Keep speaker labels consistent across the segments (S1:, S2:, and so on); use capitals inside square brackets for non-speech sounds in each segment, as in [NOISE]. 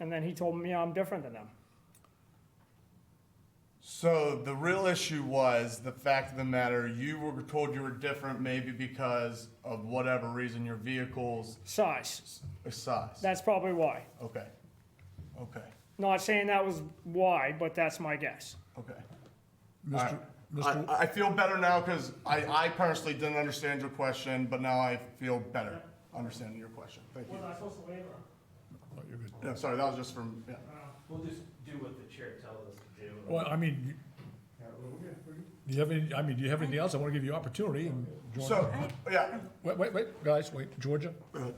S1: And then he told me I'm different than them.
S2: So the real issue was the fact of the matter, you were told you were different maybe because of whatever reason your vehicle's
S1: Size.
S2: size.
S1: That's probably why.
S2: Okay. Okay.
S1: Not saying that was why, but that's my guess.
S2: Okay.
S3: Mr.
S2: I,
S3: Mr.
S2: I feel better now because I, I personally didn't understand your question, but now I feel better understanding your question. Thank you.
S1: I supposed to waiver?
S3: Oh, you're good.
S2: Yeah, sorry, that was just from, yeah.
S4: We'll just do what the chair tells us to do.
S3: Well, I mean, you- do you have any, I mean, do you have anything else? I want to give you opportunity and
S2: So,
S3: Georgia.
S2: yeah,
S3: Wait, wait, wait, guys, wait, Georgia?
S5: Mm,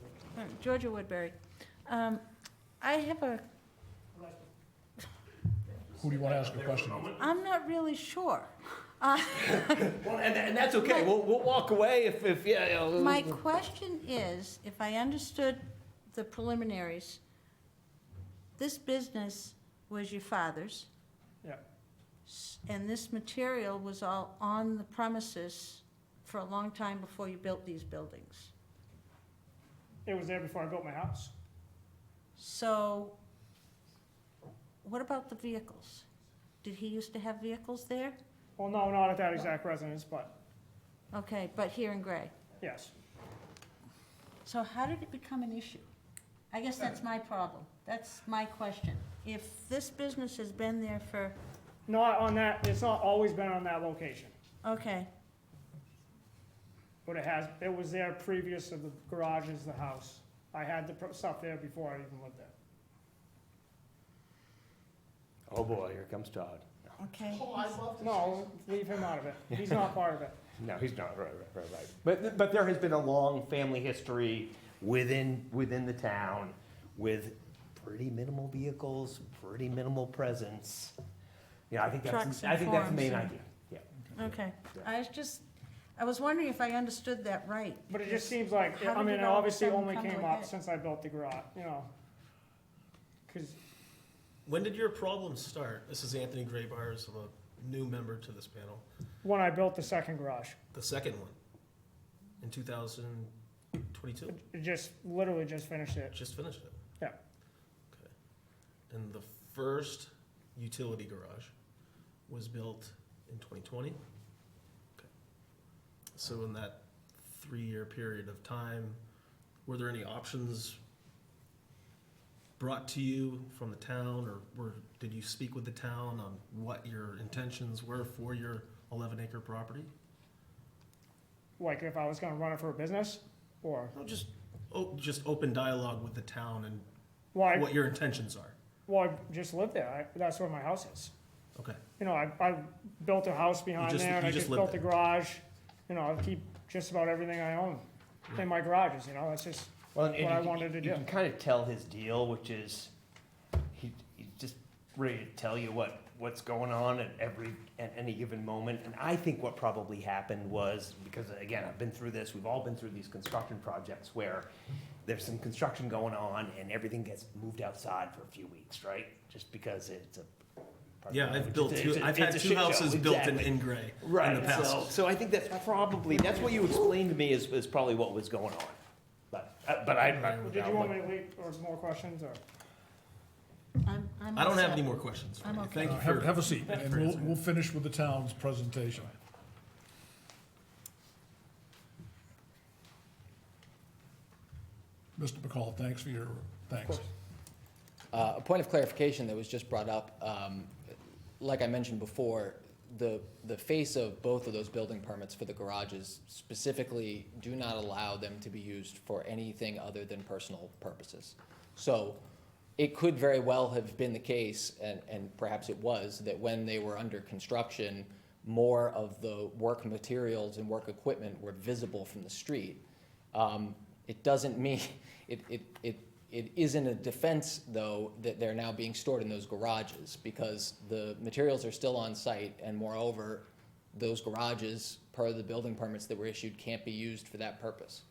S5: Georgia Woodbury. Um, I have a,
S3: Who do you want to ask a question?
S5: I'm not really sure.
S4: Well, and, and that's okay, we'll, we'll walk away if, if, yeah, you know,
S5: My question is, if I understood the preliminaries, this business was your father's,
S1: Yeah,
S5: s- and this material was all on the premises for a long time before you built these buildings.
S1: it was there before I built my house.
S5: So what about the vehicles? Did he used to have vehicles there?
S1: Well, no, not at that exact residence, but
S5: Okay, but here in Gray.
S1: yes.
S5: So how did it become an issue? I guess that's my problem. That's my question. If this business has been there for,
S1: Not on that, it's not always been on that location,
S5: okay,
S1: but it has, it was there previous to the garage is the house. I had the pro- stuff there before I even lived there.
S4: Oh, boy, here comes Todd.
S5: okay.
S1: No, leave him out of it. He's not part of it.
S4: No, he's not, right, right, right, right. But, but there has been a long family history within, within the town with pretty minimal vehicles, pretty minimal presence. Yeah, I think
S5: Trucks
S4: that's,
S5: and
S4: I think that's
S5: farms
S4: the main
S5: and-
S4: idea, yeah.
S5: Okay. I was just, I was wondering if I understood that right.
S1: But it just seems like, I
S5: How did
S1: mean,
S5: it
S1: it
S5: all of a
S1: obviously
S5: sudden
S1: only
S5: come to
S1: came
S5: a
S1: up
S5: head?
S1: since I built the garage, you know. Cause
S6: When did your problems start? This is Anthony Graybars, I'm a new member to this panel.
S1: when I built the second garage,
S6: The second one, in 2022,
S1: it just, literally just finished it.
S6: just finished it.
S1: Yeah.
S6: Okay. And the first utility garage was built in 2020. Okay. So in that three-year period of time, were there any options brought to you from the town, or were, did you speak with the town on what your intentions were for your 11-acre property?
S1: Like if I was gonna run it for a business or,
S6: No, just, oh, just open dialogue with the town and
S1: well, I,
S6: what your intentions are.
S1: well, I just lived there. I, that's where my house is.
S6: Okay.
S1: You know, I, I built a house behind
S6: just-
S1: there and
S6: you
S1: I
S6: just
S1: just
S6: lived
S1: built a
S6: there.
S1: garage. You know, I keep just about everything I own in my garages, you know, it's just,
S4: Well, and,
S1: what
S4: you
S1: I
S4: can-
S1: wanted to
S4: You
S1: do.
S4: can kind of tell his deal, which is he, he's just ready to tell you what, what's going on at every, at any given moment. And I think what probably happened was, because again, I've been through this, we've all been through these construction projects where there's some construction going on and everything gets moved outside for a few weeks, right? Just because it's a.
S6: Yeah, I've built
S4: It's a-
S6: two,
S4: it's a-
S6: I've had
S4: it's a
S6: two
S4: shit show,
S6: houses built in,
S4: exactly.
S6: in gray in the
S4: Right, so,
S6: past.
S4: so I think that's probably, that's what you explained to me is, is probably what was going on. But, uh, but I. I-
S1: did you want me to leave or more questions or?
S5: I'm, I'm.
S6: I don't have
S5: upset.
S6: any more questions for
S5: I'm
S6: you.
S5: okay.
S6: Thank
S3: Uh,
S6: you
S3: Have,
S6: for,
S3: have a seat, and we'll, we'll finish with the town's presentation. Mr. McCall, thanks for your, thanks.
S7: Uh, A point of clarification that was just brought up, um, like I mentioned before, the, the face of both of those building permits for the garages specifically do not allow them to be used for anything other than personal purposes. So it could very well have been the case, and, and perhaps it was, that when they were under construction, more of the work materials and work equipment were visible from the street. Um, It doesn't mean, [LAUGHS] it, it, it, it isn't a defense, though, that they're now being stored in those garages, because the materials are still on site, and moreover, those garages, per the building permits that were issued, can't be used for that purpose.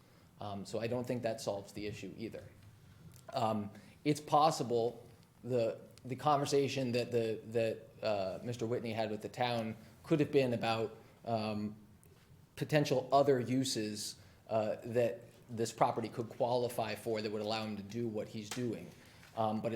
S7: Um, so I don't think that solves the issue either. Um, it's possible the, the conversation that the, that, uh, Mr. Whitney had with the town could have been about, um, potential other uses uh, that this property could qualify for that would allow him to do what he's doing. Um, But it's